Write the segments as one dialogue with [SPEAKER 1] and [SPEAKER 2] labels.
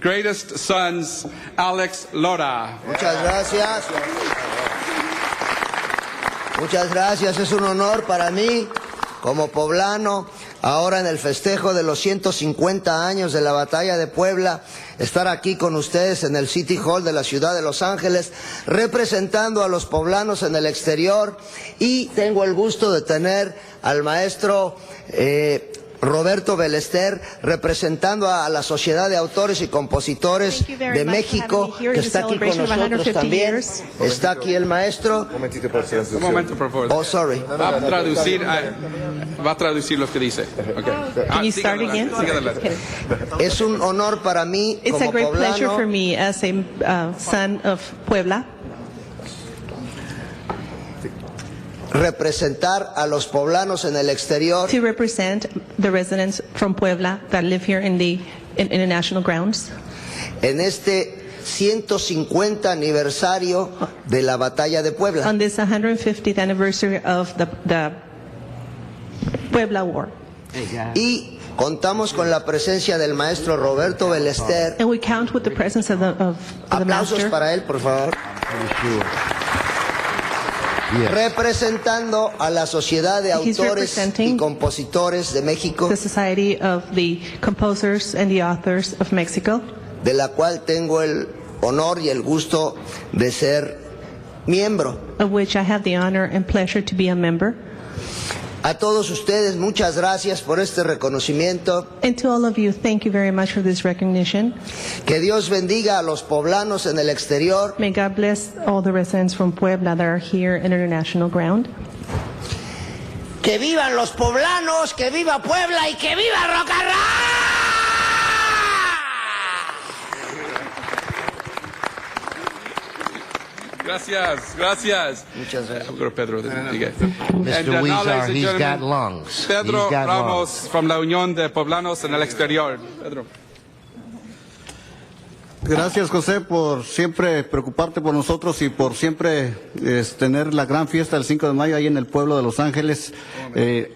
[SPEAKER 1] greatest sons, Alex Lora.
[SPEAKER 2] Muchas gracias. Muchas gracias, es un honor para mí como poblano, ahora en el festejo de los 150 años de la batalla de Puebla, estar aquí con ustedes en el City Hall de la ciudad de Los Ángeles, representando a los poblanos en el exterior y tengo el gusto de tener al maestro eh, Roberto Belester, representando a la Sociedad de Autores y Compositores
[SPEAKER 3] Thank you very
[SPEAKER 2] de
[SPEAKER 3] much for
[SPEAKER 2] México,
[SPEAKER 3] having me here
[SPEAKER 2] que
[SPEAKER 3] in
[SPEAKER 2] está aquí con
[SPEAKER 3] celebration of
[SPEAKER 2] nosotros
[SPEAKER 3] 150
[SPEAKER 2] también.
[SPEAKER 3] years.
[SPEAKER 2] Está aquí el maestro.
[SPEAKER 4] Un momentito por si
[SPEAKER 1] Un momento, por favor.
[SPEAKER 2] Oh, sorry.
[SPEAKER 1] Va a traducir, a- va a traducir lo que dice. Okay. Ah,
[SPEAKER 3] Can you
[SPEAKER 1] siga
[SPEAKER 3] start again?
[SPEAKER 1] adelante, siga adelante.
[SPEAKER 3] Okay.
[SPEAKER 2] Es un honor para mí
[SPEAKER 3] It's a
[SPEAKER 2] como
[SPEAKER 3] great pleasure for
[SPEAKER 2] poblano
[SPEAKER 3] me as a uh, son of Puebla
[SPEAKER 2] representar a los poblanos en el exterior
[SPEAKER 3] to represent the residents from Puebla that live here in the in international grounds
[SPEAKER 2] en este 150 aniversario de la batalla de Puebla.
[SPEAKER 3] on this 150th anniversary of the, the Puebla War.
[SPEAKER 2] Y contamos con la presencia del maestro Roberto Belester.
[SPEAKER 3] And we count with the presence of the, of, of the
[SPEAKER 2] Aplausos
[SPEAKER 3] master
[SPEAKER 2] para él, por favor. Representando a la Sociedad de Autores
[SPEAKER 3] He's
[SPEAKER 2] y
[SPEAKER 3] representing
[SPEAKER 2] Compositores de México,
[SPEAKER 3] the Society of the Composers and the Authors of Mexico,
[SPEAKER 2] de la cual tengo el honor y el gusto de ser miembro.
[SPEAKER 3] of which I have the honor and pleasure to be a member.
[SPEAKER 2] A todos ustedes, muchas gracias por este reconocimiento.
[SPEAKER 3] And to all of you, thank you very much for this recognition.
[SPEAKER 2] Que Dios bendiga a los poblanos en el exterior.
[SPEAKER 3] May God bless all the residents from Puebla that are here in international ground.
[SPEAKER 2] ¡Que vivan los poblanos! ¡Que viva Puebla y que viva Rocarrá!
[SPEAKER 1] Gracias, gracias. Eh,
[SPEAKER 2] Muchas gracias.
[SPEAKER 1] Pedro, diga. And,
[SPEAKER 5] Mr.
[SPEAKER 1] uh, now, ladies
[SPEAKER 5] Weezer,
[SPEAKER 1] and
[SPEAKER 5] he's got
[SPEAKER 1] gentlemen,
[SPEAKER 5] lungs.
[SPEAKER 1] Pedro
[SPEAKER 5] he's got
[SPEAKER 1] Ramos
[SPEAKER 5] lungs.
[SPEAKER 1] from la Unión de Poblanos en el Exterior. Pedro.
[SPEAKER 6] Gracias José por siempre preocuparte por nosotros y por siempre es, tener la gran fiesta del 5 de mayo ahí en el pueblo de Los Ángeles. Eh,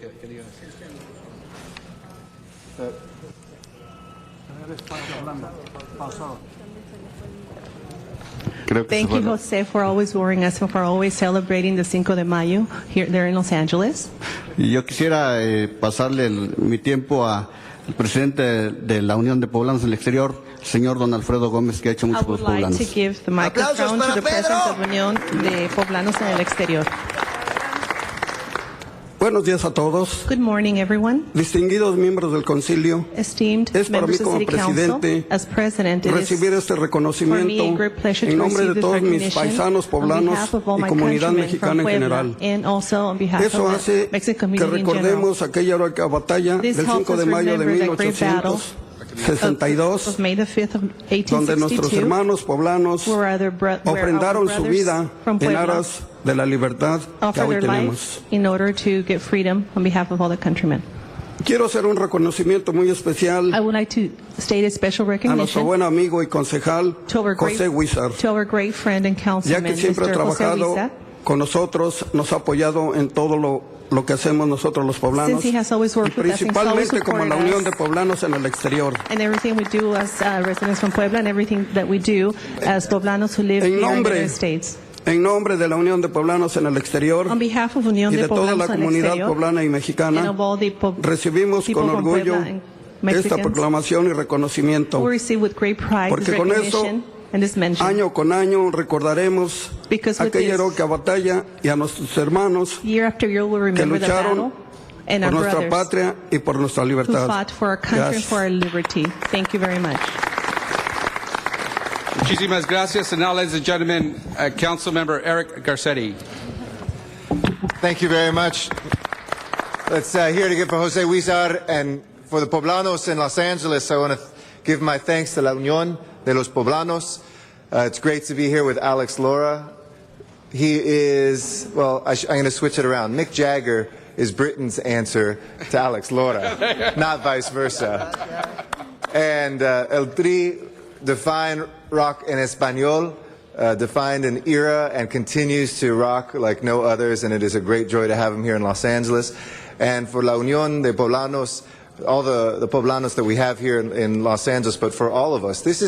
[SPEAKER 5] Creo que
[SPEAKER 3] Thank
[SPEAKER 5] se
[SPEAKER 3] you,
[SPEAKER 5] fue.
[SPEAKER 3] José, for always warning us and for always celebrating the Cinco de Mayo here there in Los Angeles.
[SPEAKER 6] y yo quisiera eh, pasarle el- mi tiempo a- al presidente de, la Unión de Poblanos del Exterior, el señor don Alfredo Gómez, que ha hecho
[SPEAKER 3] I
[SPEAKER 6] mucho por
[SPEAKER 3] would
[SPEAKER 6] los
[SPEAKER 3] like
[SPEAKER 6] poblanos.
[SPEAKER 3] to give the
[SPEAKER 2] Aplausos
[SPEAKER 3] microphone
[SPEAKER 2] para
[SPEAKER 3] to the President
[SPEAKER 2] Pedro.
[SPEAKER 3] of Unión de Poblanos en el Exterior.
[SPEAKER 7] Buenos días a todos,
[SPEAKER 3] Good morning, everyone.
[SPEAKER 7] distinguidos miembros del concilio.
[SPEAKER 3] Esteemed
[SPEAKER 7] Es para mí
[SPEAKER 3] members of
[SPEAKER 7] como
[SPEAKER 3] City Council,
[SPEAKER 7] presidente
[SPEAKER 3] as President, it is
[SPEAKER 7] Recibir este
[SPEAKER 3] for me a
[SPEAKER 7] reconocimiento
[SPEAKER 3] great pleasure to
[SPEAKER 7] en nombre
[SPEAKER 3] receive
[SPEAKER 7] de
[SPEAKER 3] this
[SPEAKER 7] todos mis
[SPEAKER 3] recognition
[SPEAKER 7] paisanos
[SPEAKER 3] on
[SPEAKER 7] poblanos
[SPEAKER 3] behalf of all
[SPEAKER 7] y
[SPEAKER 3] my
[SPEAKER 7] comunidad
[SPEAKER 3] countrymen
[SPEAKER 7] mexicana
[SPEAKER 3] from
[SPEAKER 7] en
[SPEAKER 3] Puebla
[SPEAKER 7] general.
[SPEAKER 3] and also on behalf
[SPEAKER 7] Eso
[SPEAKER 3] of the
[SPEAKER 7] hace
[SPEAKER 3] Mexican
[SPEAKER 7] que
[SPEAKER 3] community in general.
[SPEAKER 7] recordemos aquella heroica batalla
[SPEAKER 3] This
[SPEAKER 7] del
[SPEAKER 3] helps
[SPEAKER 7] 5 de
[SPEAKER 3] us
[SPEAKER 7] mayo de
[SPEAKER 3] remember that great battle
[SPEAKER 7] 1862,
[SPEAKER 3] of May the 5th of
[SPEAKER 7] donde nuestros
[SPEAKER 3] 1862,
[SPEAKER 7] hermanos poblanos
[SPEAKER 3] where other bro- where our
[SPEAKER 7] ofrendaron su
[SPEAKER 3] brothers
[SPEAKER 7] vida
[SPEAKER 3] from
[SPEAKER 7] en
[SPEAKER 3] Puebla
[SPEAKER 7] aras de la libertad que
[SPEAKER 3] offer
[SPEAKER 7] hoy
[SPEAKER 3] their
[SPEAKER 7] tenemos.
[SPEAKER 3] lives in order to get freedom on behalf of all the countrymen.
[SPEAKER 7] Quiero hacer un reconocimiento muy especial
[SPEAKER 3] I would like to state a special
[SPEAKER 7] a nuestro buen
[SPEAKER 3] recognition
[SPEAKER 7] amigo y concejal
[SPEAKER 3] to our great,
[SPEAKER 7] José Huizar.
[SPEAKER 3] to our great friend and
[SPEAKER 7] ya
[SPEAKER 3] councilman,
[SPEAKER 7] que siempre ha
[SPEAKER 3] Mr. José
[SPEAKER 7] trabajado
[SPEAKER 3] Huiza.
[SPEAKER 7] con nosotros, nos ha apoyado en todo lo, lo que hacemos nosotros los poblanos,
[SPEAKER 3] Since he has always
[SPEAKER 7] y
[SPEAKER 3] worked with us, he's always
[SPEAKER 7] principalmente como la
[SPEAKER 3] supported
[SPEAKER 7] Unión
[SPEAKER 3] us.
[SPEAKER 7] de Poblanos en el exterior.
[SPEAKER 3] And everything we do as uh, residents from Puebla and everything that we do as poblanos who live
[SPEAKER 7] En
[SPEAKER 3] here in the
[SPEAKER 7] nombre-
[SPEAKER 3] United States.
[SPEAKER 7] En nombre de la Unión de Poblanos en el exterior
[SPEAKER 3] On behalf of Unión
[SPEAKER 7] y
[SPEAKER 3] de
[SPEAKER 7] de toda la
[SPEAKER 3] Poblanos en el
[SPEAKER 7] comunidad
[SPEAKER 3] Exterior,
[SPEAKER 7] poblana y
[SPEAKER 3] and
[SPEAKER 7] mexicana,
[SPEAKER 3] of all the po-
[SPEAKER 7] recibimos
[SPEAKER 3] people
[SPEAKER 7] con
[SPEAKER 3] from
[SPEAKER 7] orgullo
[SPEAKER 3] Puebla and
[SPEAKER 7] esta
[SPEAKER 3] Mexicans,
[SPEAKER 7] proclamación y reconocimiento.
[SPEAKER 3] We receive with great pride
[SPEAKER 7] Porque
[SPEAKER 3] this
[SPEAKER 7] con eso,
[SPEAKER 3] recognition and this mention.
[SPEAKER 7] Año con año recordaremos
[SPEAKER 3] Because with
[SPEAKER 7] aquella
[SPEAKER 3] this-
[SPEAKER 7] heroica batalla y a nuestros hermanos
[SPEAKER 3] year after year, we'll remember the
[SPEAKER 7] lucharon
[SPEAKER 3] battle and our
[SPEAKER 7] por nuestra
[SPEAKER 3] brothers
[SPEAKER 7] patria y por nuestra
[SPEAKER 3] who
[SPEAKER 7] libertad.
[SPEAKER 3] fought for our country and
[SPEAKER 7] Gracias.
[SPEAKER 3] for our liberty. Thank you very much.
[SPEAKER 1] Muchísimas gracias. And now, ladies and gentlemen, uh, Council Member Eric Garcetti.
[SPEAKER 4] Thank you very much. Let's uh, here to give for Jose Huizar and for the poblanos in Los Angeles. I want to give my thanks to La Unión de los Poblanos. Uh, it's great to be here with Alex Laura. He is, well, I sh- I'm going to switch it around. Mick Jagger is Britain's answer to Alex Laura, not vice versa. And uh, El Tri defined rock en español, uh, defined an era, and continues to rock like no others. And it is a great joy to have him here in Los Angeles. And for La Unión de Poblanos, all the, the poblanos that we have here in, in Los Angeles, but for all of us. This is